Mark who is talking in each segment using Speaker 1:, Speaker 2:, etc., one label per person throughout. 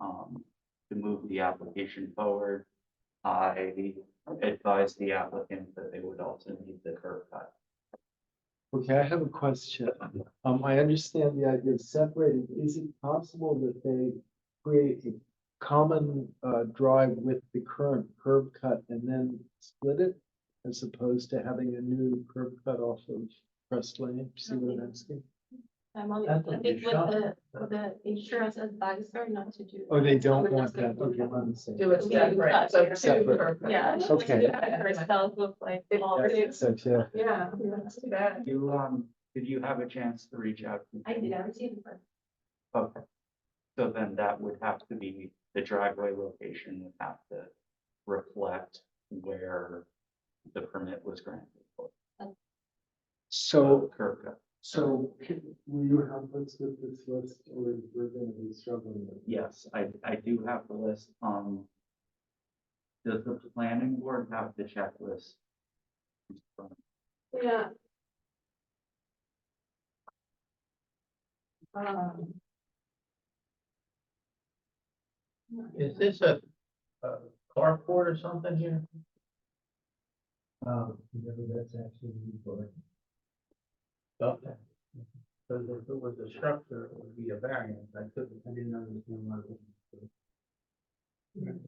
Speaker 1: um, move the application forward. I advise the applicant that they would also need the curb cut.
Speaker 2: Okay, I have a question. Um, I understand the idea of separating. Is it possible that they create a common uh drive with the current curb cut and then split it? As opposed to having a new curb cut off of Crest Lane, see what I'm asking?
Speaker 3: I'm only, I
Speaker 2: That's what
Speaker 3: think with
Speaker 2: they shot.
Speaker 3: the, with the insurance advisor not to do.
Speaker 2: Oh, they don't
Speaker 3: Someone
Speaker 2: want
Speaker 3: else
Speaker 2: that,
Speaker 3: can
Speaker 2: okay,
Speaker 3: do
Speaker 2: I'm saying.
Speaker 4: Do it
Speaker 3: We-
Speaker 4: separate, so two
Speaker 2: Separate.
Speaker 4: per person.
Speaker 3: Yeah.
Speaker 2: Okay.
Speaker 3: Herself look like. all
Speaker 2: That's-
Speaker 3: this.
Speaker 2: that's- yeah.
Speaker 4: Yeah, that's too bad.
Speaker 1: You, um, did you have a chance to reach out? to
Speaker 3: I
Speaker 1: them?
Speaker 3: did, I received it.
Speaker 1: Okay. So then that would have to be, the driveway location would have to reflect where the permit was granted. for
Speaker 2: So
Speaker 1: Curb cut.
Speaker 2: So can- will you help us with this list or we're gonna be struggling with? it?
Speaker 1: Yes, I, I do have the list, um. Does the planning board have the checklist?
Speaker 4: Yeah. Um.
Speaker 5: Is this a, a carport or something here?
Speaker 2: Um, whether that's actually for.
Speaker 5: Okay. Because if it was a structure, it would be a variance, I couldn't, I didn't understand why. it wasn't.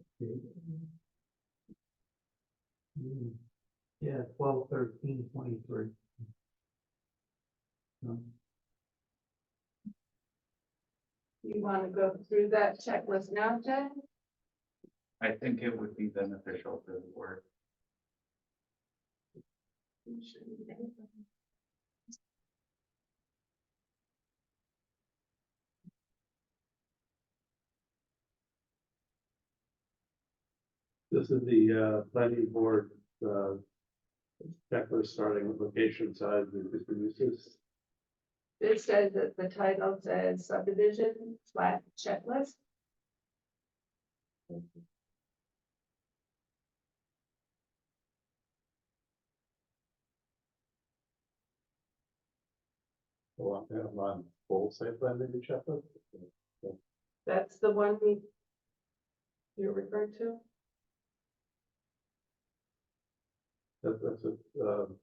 Speaker 5: Hmm. Yeah, twelve, thirteen, twenty-three.
Speaker 4: You wanna go through that checklist now, Jen?
Speaker 1: I think it would be beneficial for the board.
Speaker 6: This is the uh planning board uh. Checklist starting with location, size, and existing uses.
Speaker 4: It says that the title says subdivision flat checklist.
Speaker 6: Well, I have on full site plan maybe checklist.
Speaker 4: That's the one we. You're referring to?
Speaker 6: That that's a um.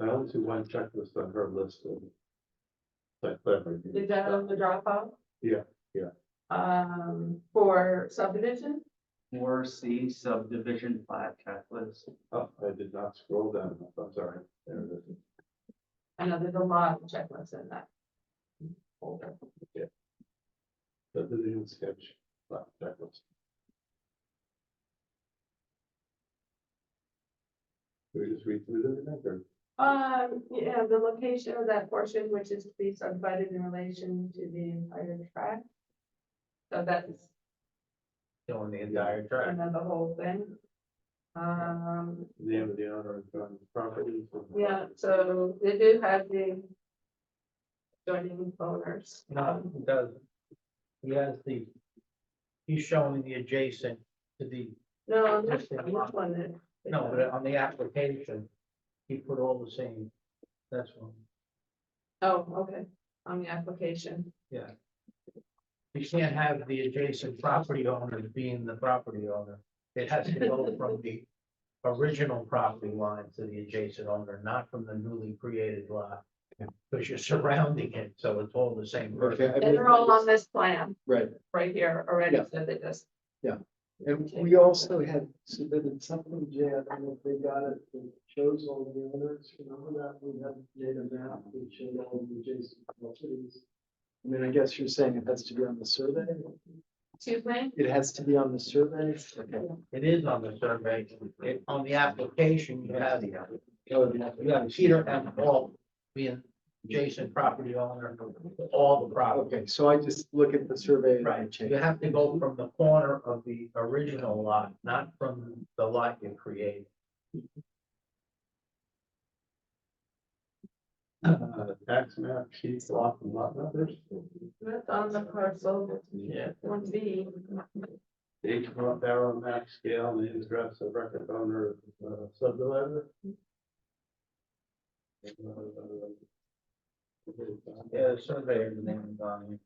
Speaker 6: I only see one checklist on her list of. Site plan review.
Speaker 4: Is that on the Dropbox?
Speaker 6: Yeah, yeah.
Speaker 4: Um, for subdivision?
Speaker 1: Or C subdivision plat checklist.
Speaker 6: Oh, I did not scroll down, enough. I'm sorry. There it is.
Speaker 4: I know there's a lot of checklists in that. folder.
Speaker 6: Subdivision sketch, lot checklist. Can we just read through them again, or?
Speaker 4: Um, yeah, the location of that portion which is to be subdivided in relation to the entire tract. So that's
Speaker 5: Showing the entire track.
Speaker 4: another whole thing. Um,
Speaker 6: name of the owner and joint property.
Speaker 4: yeah, so they do have the. Joining Um, owners.
Speaker 5: No, he doesn't. He has the, he's showing the adjacent to the,
Speaker 4: No, this this one is.
Speaker 5: no, but uh, on the application, he put all the same, that's one.
Speaker 4: Oh, okay, on the application.
Speaker 5: You can't have the adjacent property owner being the property owner. It has to go from the original property line to the adjacent owner, not from the newly created lot. Because you're surrounding it, so it's all the
Speaker 2: Okay,
Speaker 5: same person.
Speaker 2: I
Speaker 4: And
Speaker 2: mean,
Speaker 4: they're all on this plan
Speaker 2: right,
Speaker 4: right here already,
Speaker 2: Yeah.
Speaker 4: so they just.
Speaker 2: and we also had submitted something, Jay, I don't know if they got it, that shows all the owners, remember that, we had made a map that showed all the adjacent properties. I mean, I guess you're saying it has to be on the survey,
Speaker 4: Excuse me?
Speaker 2: it has to be on the survey,
Speaker 5: It is on the survey, It- on the application, you have,
Speaker 1: the other.
Speaker 5: you have Peter and Paul being adjacent property owner, all the property.
Speaker 2: okay, so I just look at the survey. and I
Speaker 5: Right,
Speaker 2: change.
Speaker 5: you have to go from the corner of the original lot, not from the lot you create.
Speaker 6: Uh, tax map, sheet block and lot numbers.
Speaker 4: That's on the parcel,
Speaker 5: Yeah.
Speaker 4: one B.
Speaker 6: H one barrel map scale, name, address of record owner, uh, subdivider. Uh, uh,
Speaker 5: Yeah, surveyor name is on